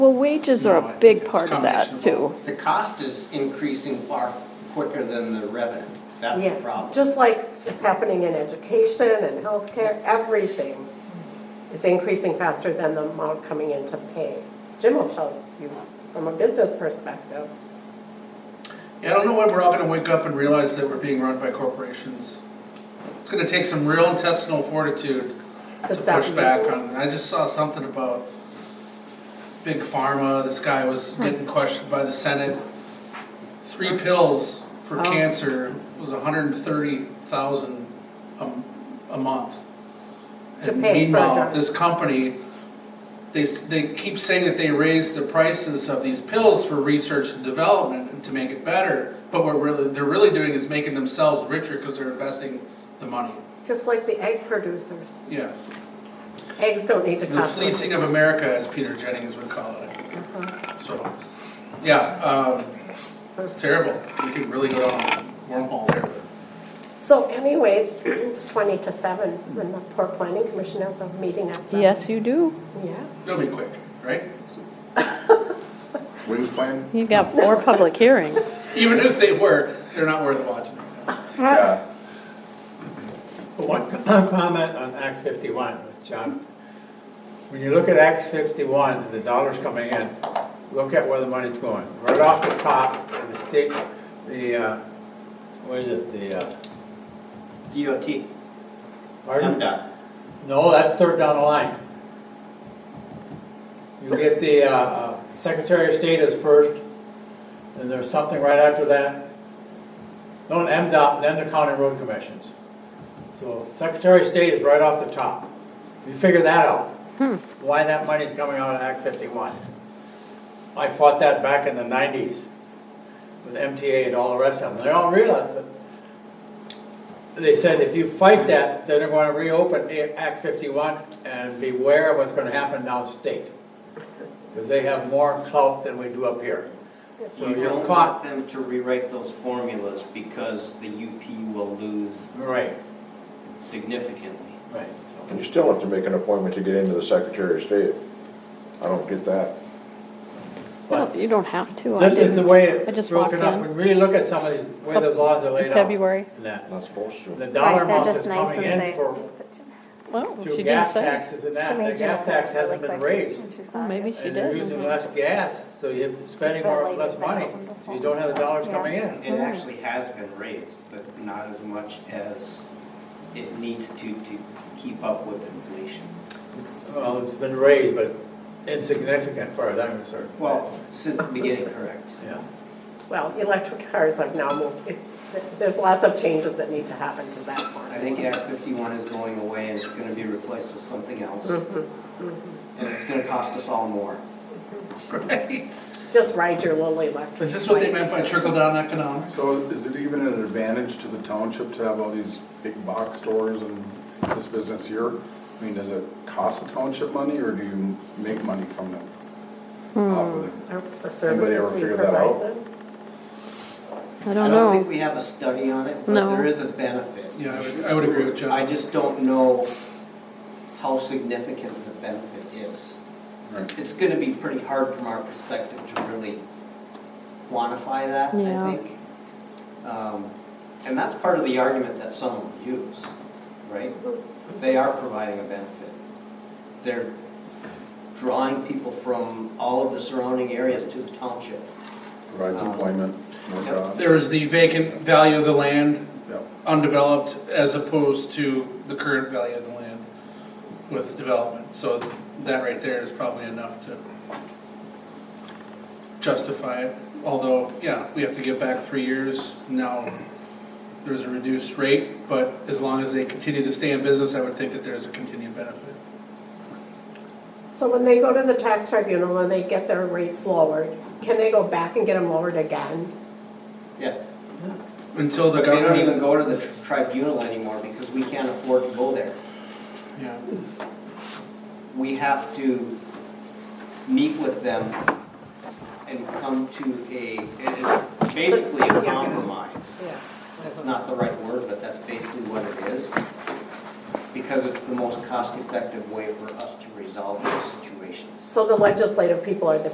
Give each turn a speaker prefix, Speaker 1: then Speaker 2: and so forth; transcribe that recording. Speaker 1: Well, wages are
Speaker 2: No, I
Speaker 1: a
Speaker 2: think
Speaker 1: big
Speaker 2: it's
Speaker 1: part of that,
Speaker 2: combination of
Speaker 1: too.
Speaker 2: all.
Speaker 3: The cost is increasing far quicker than the revenue. That's the
Speaker 4: Yeah,
Speaker 3: problem.
Speaker 4: Just like it's happening in education and healthcare, everything is increasing faster than the amount coming in to pay. Jim will tell you from a business perspective.
Speaker 2: Yeah, I don't know when we're all gonna wake up and realize that we're being run by corporations. It's gonna take some real intestinal fortitude
Speaker 4: To
Speaker 2: to
Speaker 4: stop
Speaker 2: push back
Speaker 4: using it.
Speaker 2: on, I just saw something about big pharma, this guy was getting questioned by the Senate. Three pills for
Speaker 4: Oh.
Speaker 2: cancer was hundred and thirty thousand a, a month.
Speaker 4: To
Speaker 2: And
Speaker 4: pay for a
Speaker 2: Meanwhile,
Speaker 4: drug.
Speaker 2: this company, they, s- they keep saying that they raised the prices of these pills for research and development and to make it better, but what really, they're really doing is making themselves richer because they're investing the money,
Speaker 4: Just like the egg producers.
Speaker 2: yes.
Speaker 4: Eggs don't need to
Speaker 2: The
Speaker 4: cost. much.
Speaker 2: fleecing of America, as Peter Jennings would call it.
Speaker 4: Uh-huh.
Speaker 2: So, yeah, um, it's terrible. We could really go down a wormhole there.
Speaker 4: So anyways, it's 20 to 7 when the Port Planning Commission has a meeting at 7.
Speaker 1: Yes, you do.
Speaker 4: Yes.
Speaker 2: but It'll be quick, right?
Speaker 5: When's plan?
Speaker 1: You got four public hearings.
Speaker 2: Even if they were, they're not worth watching.
Speaker 5: Yeah.
Speaker 6: One comment on Act 51, with John. When you look at Act 51, and the dollars coming in, look at where the money's going. Right off the top, the state, the, uh, what is it, the, uh,
Speaker 3: DOT,
Speaker 6: pardon?
Speaker 3: MDOT.
Speaker 6: No, that's third down the line. You get the uh, uh, Secretary of State is first, and there's something right after that. No, an MDOT, then the county road commissions. So Secretary of State is right off the top. You figure that out. Why that money's coming out of Act 51. I fought that back in the 90s with MTA and all the rest of them. They all realized that they said if you fight that, then they're gonna reopen A- Act fifty-one and beware of what's gonna happen downstate. Because they have more clout than we do up here. So
Speaker 3: You
Speaker 6: you're
Speaker 3: don't want
Speaker 6: caught,
Speaker 3: them to rewrite those formulas because the UP will lose
Speaker 6: right,
Speaker 3: significantly.
Speaker 6: right.
Speaker 5: And you still have to make an appointment to get into the Secretary of State. I don't get that.
Speaker 6: But
Speaker 1: You don't have to. I
Speaker 6: this is the
Speaker 1: didn't.
Speaker 6: way
Speaker 1: I just
Speaker 6: it's broken
Speaker 1: walked
Speaker 6: up,
Speaker 1: in.
Speaker 6: when we look at some of these, way the laws are laid out.
Speaker 1: February.
Speaker 6: and that.
Speaker 5: Not supposed
Speaker 6: The
Speaker 5: to.
Speaker 6: dollar
Speaker 7: Right, they're
Speaker 6: amount that's
Speaker 7: just nice
Speaker 6: coming
Speaker 7: and
Speaker 6: in
Speaker 7: say.
Speaker 6: for,
Speaker 1: Well, she
Speaker 6: through
Speaker 1: didn't
Speaker 6: gas
Speaker 1: say.
Speaker 6: taxes and
Speaker 7: She
Speaker 6: that, the
Speaker 7: made you
Speaker 6: gas
Speaker 7: a
Speaker 6: tax
Speaker 7: really
Speaker 6: hasn't been
Speaker 7: quick
Speaker 6: raised.
Speaker 7: when she saw
Speaker 1: Well,
Speaker 7: it.
Speaker 1: Maybe she
Speaker 6: And you're
Speaker 1: did.
Speaker 6: using less gas, so you're spending
Speaker 7: that
Speaker 6: more,
Speaker 7: lady
Speaker 6: less
Speaker 7: said
Speaker 6: money,
Speaker 7: open the
Speaker 6: so you don't have the dollars
Speaker 7: Yeah.
Speaker 6: coming in.
Speaker 3: It actually has been raised, but not as much as it needs to, to keep up with inflation.
Speaker 6: Well, it's been raised, but insignificant as far as I'm concerned.
Speaker 3: Well, since the beginning, correct.
Speaker 6: Yeah.
Speaker 4: Well, electric cars have now moved, it- there's lots of changes that need to happen to that
Speaker 3: I
Speaker 4: one.
Speaker 3: think Act 51 is going away and it's gonna be replaced with something else.
Speaker 4: Mm-hmm.
Speaker 3: And it's gonna cost us all more.
Speaker 2: Right?
Speaker 4: Just ride your little electric
Speaker 2: Is this what they meant by
Speaker 4: bikes.
Speaker 2: trickle-down economics?
Speaker 5: So is it even an advantage to the township to have all these big box stores and this business here? I mean, does it cost the township money or do you make money from it? Off of
Speaker 4: Are
Speaker 5: it?
Speaker 4: The
Speaker 5: Anybody
Speaker 4: services
Speaker 5: ever
Speaker 4: we
Speaker 5: figure that out?
Speaker 4: provide them.
Speaker 1: I
Speaker 3: I
Speaker 1: don't
Speaker 3: don't think
Speaker 1: know.
Speaker 3: we have a study on it,
Speaker 1: No.
Speaker 3: but there is a benefit.
Speaker 2: Yeah, I would, I would agree with John.
Speaker 3: I just don't know how significant the benefit is.
Speaker 5: Right.
Speaker 3: It's gonna be pretty hard from our perspective to really quantify that,
Speaker 1: Yeah.
Speaker 3: I think. Um, And that's part of the argument that some will use, right? They are providing a benefit. They're drawing people from all of the surrounding areas to the township. Um,
Speaker 5: Provides
Speaker 3: Uh,
Speaker 5: employment, more
Speaker 3: Yep.
Speaker 5: jobs.
Speaker 2: There is the vacant value of the land
Speaker 5: Yep.
Speaker 2: undeveloped as opposed to the current value of the land with development. So that right there is probably enough to justify it. Although, yeah, we have to give back three years. Now, there's a reduced rate, but as long as they continue to stay in business, I would think that there's a continued benefit.
Speaker 4: So when they go to the tax tribunal and they get their rates lowered, can they go back and get them lowered again?
Speaker 3: Yes.
Speaker 2: Until the
Speaker 3: But they don't
Speaker 2: government,
Speaker 3: even go to the tr- tribunal anymore because we can't afford to go there.
Speaker 2: yeah,
Speaker 3: We have to meet with them and come to a, it is basically a compromise.
Speaker 4: Yeah.
Speaker 3: That's not the right word, but that's basically what it is. Because it's the most cost-effective way for us to resolve those situations.
Speaker 4: So the legislative people are the